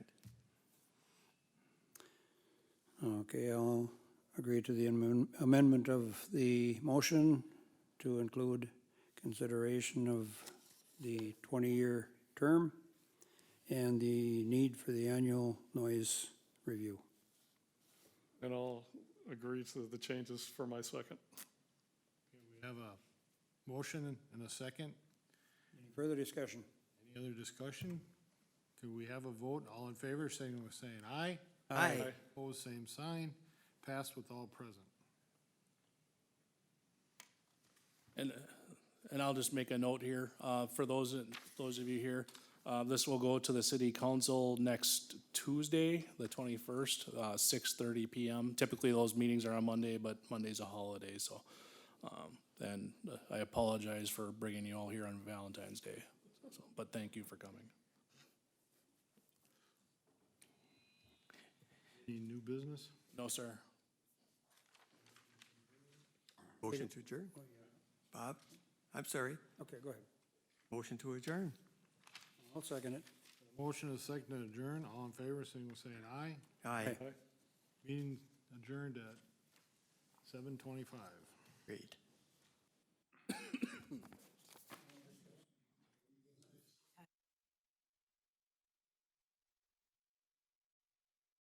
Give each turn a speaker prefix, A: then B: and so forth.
A: Okay, I'll agree to the amend- amendment of the motion to include consideration of the twenty-year term and the need for the annual noise review.
B: And I'll agree to the changes for my second.
C: We have a motion and a second.
A: Further discussion?
C: Any other discussion? Could we have a vote? All in favor, signal with saying aye.
D: Aye.
C: Opposed, same sign. Passed with all present.
E: And, and I'll just make a note here, uh, for those, those of you here, uh, this will go to the city council next Tuesday, the twenty-first, uh, six thirty PM. Typically, those meetings are on Monday, but Monday's a holiday, so, um, and I apologize for bringing you all here on Valentine's Day. So, But thank you for coming.
C: Any new business?
E: No, sir.
D: Motion to adjourn? Bob? I'm sorry.
A: Okay, go ahead.
D: Motion to adjourn.
A: I'll second it.
C: Motion and a second to adjourn. All in favor, signal with saying aye.
D: Aye.
B: Aye.
C: Meeting adjourned at seven twenty-five.
D: Great.